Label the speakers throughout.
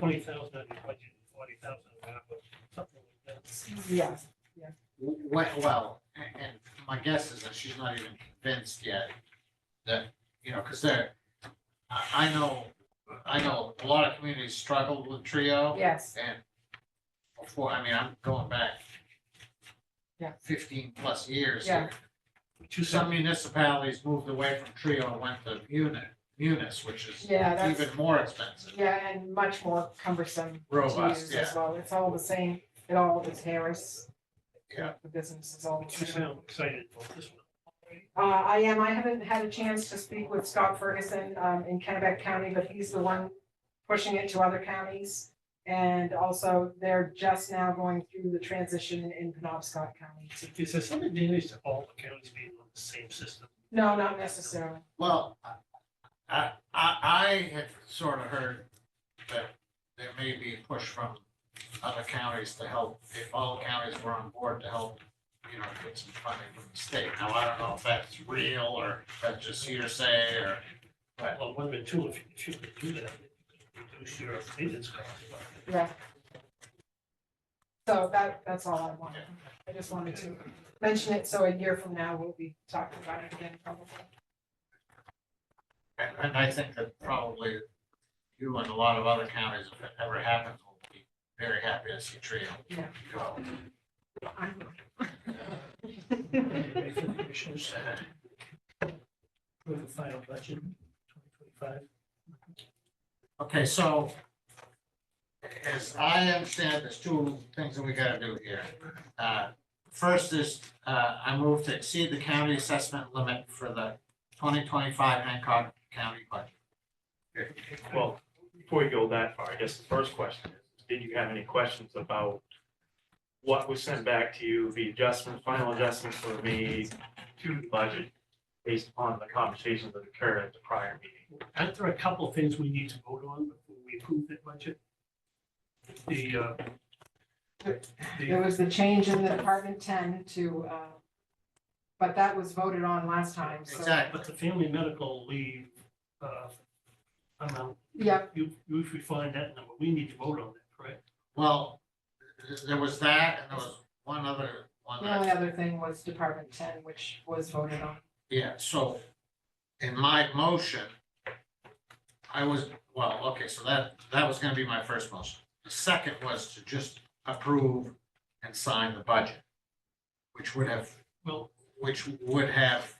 Speaker 1: twenty thousand out of your budget, and forty thousand out of ARPA, something like that.
Speaker 2: Yeah,
Speaker 3: Well, well, and, and my guess is that she's not even convinced yet that, you know, because they're, I, I know, I know a lot of communities struggled with Trio.
Speaker 2: yes,
Speaker 3: And before, I mean, I'm going back
Speaker 2: Yeah.
Speaker 3: fifteen plus years.
Speaker 2: Yeah.
Speaker 3: To some municipalities moved away from Trio and went to Munis, Munis, which is
Speaker 2: yeah, that's,
Speaker 3: even more expensive.
Speaker 2: yeah, and much more cumbersome to
Speaker 3: Robust,
Speaker 2: use
Speaker 3: yeah.
Speaker 2: as well. It's all the same, it all is Harris.
Speaker 3: Yeah.
Speaker 2: The business is all the
Speaker 1: You
Speaker 2: same.
Speaker 1: sound excited about this one.
Speaker 2: Uh, I am, I haven't had a chance to speak with Scott Ferguson, um, in Kennebec County, but he's the one pushing it to other counties. And also, they're just now going through the transition in Penobscot County.
Speaker 1: Is there some advantage to all the counties being on the same system?
Speaker 2: No, not necessarily.
Speaker 3: Well, I- I, I, I had sort of heard that there may be a push from other counties to help, if all counties were on board to help, you know, get some funding from the state. Now, I don't know if that's real or that's just hearsay or, Right.
Speaker 1: Well, one and two, if you- if you could do that, you could reduce your maintenance costs.
Speaker 2: Yeah. So that, that's all I wanted. I just wanted to mention it, so a year from now, we'll be talking about it again probably.
Speaker 3: and, and I think that probably you and a lot of other counties, if it ever happens, will be very happy to see Trio
Speaker 2: Yeah.
Speaker 3: go.
Speaker 1: Maybe for the Commissioners, approve the final budget, twenty twenty-five.
Speaker 3: Okay, so as I understand, there's two things that we gotta do here. Uh, First is, uh, I move to exceed the county assessment limit for the twenty twenty-five Hancock County budget.
Speaker 4: Well, before you go that far, I guess the first question is, did you have any questions about what was sent back to you, the adjustments, final adjustments were made to the budget based upon the conversations that occurred at the prior meeting?
Speaker 1: Aren't there a couple of things we need to vote on before we approve that budget? The, uh,
Speaker 2: There
Speaker 1: the,
Speaker 2: was the change in the Department ten to, uh, but that was voted on last time, so.
Speaker 3: Exactly,
Speaker 1: but the family medical leave, uh, amount,
Speaker 2: Yep,
Speaker 1: you, you refine that number, we need to vote on that, correct?
Speaker 3: well, th- there was that and there was one other one
Speaker 2: the only
Speaker 3: that,
Speaker 2: other thing was Department ten, which was voted on.
Speaker 3: yeah, so in my motion, I was, well, okay, so that, that was gonna be my first motion. The second was to just approve and sign the budget, which would have
Speaker 1: Well,
Speaker 3: which would have,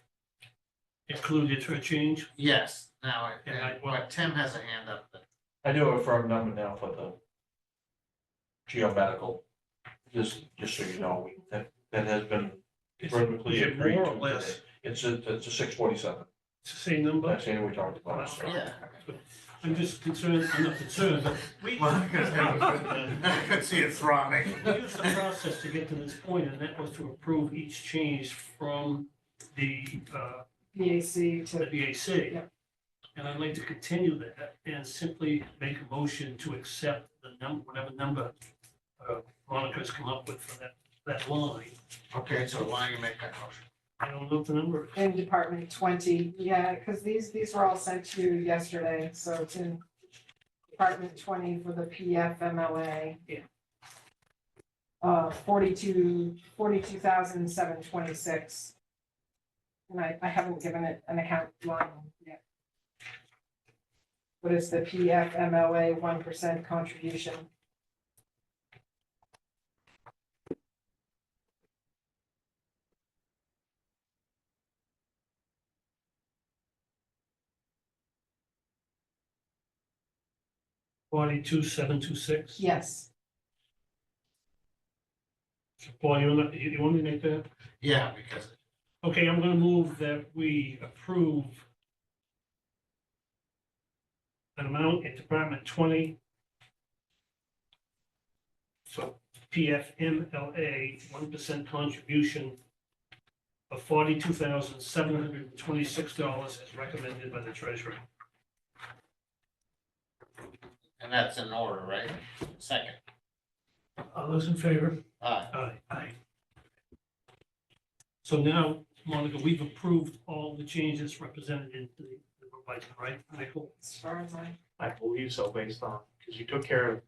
Speaker 1: included for a change,
Speaker 3: yes, now,
Speaker 1: And I-
Speaker 3: but Tim has a hand up. but-
Speaker 5: I do have a firm number now for the geomedical, just, just so you know, we- that, that has been
Speaker 1: is it
Speaker 5: vertically
Speaker 1: is it
Speaker 5: agreed
Speaker 1: more
Speaker 5: to
Speaker 1: or less?
Speaker 5: today. It's a, it's a six forty-seven,
Speaker 1: It's the same number?
Speaker 5: that's the end we talked about. so.
Speaker 3: Yeah.
Speaker 1: I'm just concerned, I'm not concerned, but we.
Speaker 3: I could see it throbbing.
Speaker 1: We used the process to get to this point, and that was to approve each change from the, uh,
Speaker 2: PAC
Speaker 1: the
Speaker 2: to,
Speaker 1: BAC.
Speaker 2: Yeah.
Speaker 1: And I'd like to continue that and simply make a motion to accept the number, whatever number uh, Monica's come up with for that, that line.
Speaker 3: Okay, so why don't you make that motion?
Speaker 1: I don't know what the number. is.
Speaker 2: in Department twenty, yeah, because these, these were all sent to you yesterday, so it's in Department twenty for the PFMLA.
Speaker 1: Yeah.
Speaker 2: Uh, forty-two, forty-two thousand seven twenty-six. And I, I haven't given it an account line yet. But it's the PFMLA one percent contribution.
Speaker 1: Forty-two, seven, two, six.
Speaker 2: Yes.
Speaker 1: Paul, you want, you you want me to make that?
Speaker 3: Yeah, because
Speaker 1: Okay, I'm gonna move that we approve an amount in Department twenty. So PFMLA, one percent contribution of forty-two thousand, seven hundred and twenty-six dollars as recommended by the treasurer.
Speaker 3: and that's in order, right? Second, uh,
Speaker 1: All those in favor?
Speaker 3: aye.
Speaker 1: Aye. Aye. So now, Monica, we've approved all the changes represented in the, the, right, Michael?
Speaker 2: As far as I,
Speaker 4: I believe so, based on because you took care of